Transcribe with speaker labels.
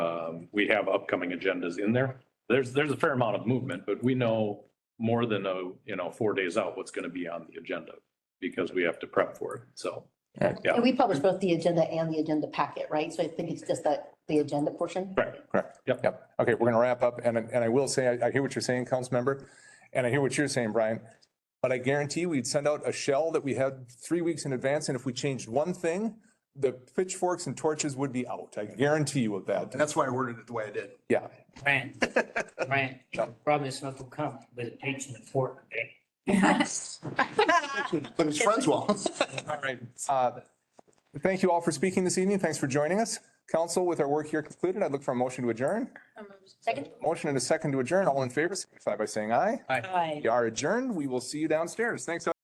Speaker 1: um, we have upcoming agendas in there. There's, there's a fair amount of movement, but we know more than a, you know, four days out what's going to be on the agenda because we have to prep for it. So, Yeah.
Speaker 2: And we publish both the agenda and the agenda packet, right? So I think it's just that, the agenda portion.
Speaker 1: right.
Speaker 3: Correct.
Speaker 1: Yep.
Speaker 3: Yep. Okay, we're gonna wrap up and, and I will say, I, I hear what you're saying, Councilmember, and I hear what you're saying, Brian. But I guarantee we'd send out a shell that we had three weeks in advance, and if we changed one thing, the pitchforks and torches would be out. I guarantee you of that.
Speaker 4: And that's why I worded it the way I did.
Speaker 3: Yeah.
Speaker 5: Brian, Brian,
Speaker 3: Yeah.
Speaker 5: problem is not to come, but it takes an important day.
Speaker 4: But it's friends well.
Speaker 3: All right. Uh, Thank you all for speaking this evening. Thanks for joining us. Council, with our work here concluded, I'd look for a motion to adjourn.
Speaker 2: Second?
Speaker 3: Motion and a second to adjourn. All in favor, signify by saying aye.
Speaker 6: Aye.
Speaker 3: You are adjourned. We will see you downstairs. Thanks.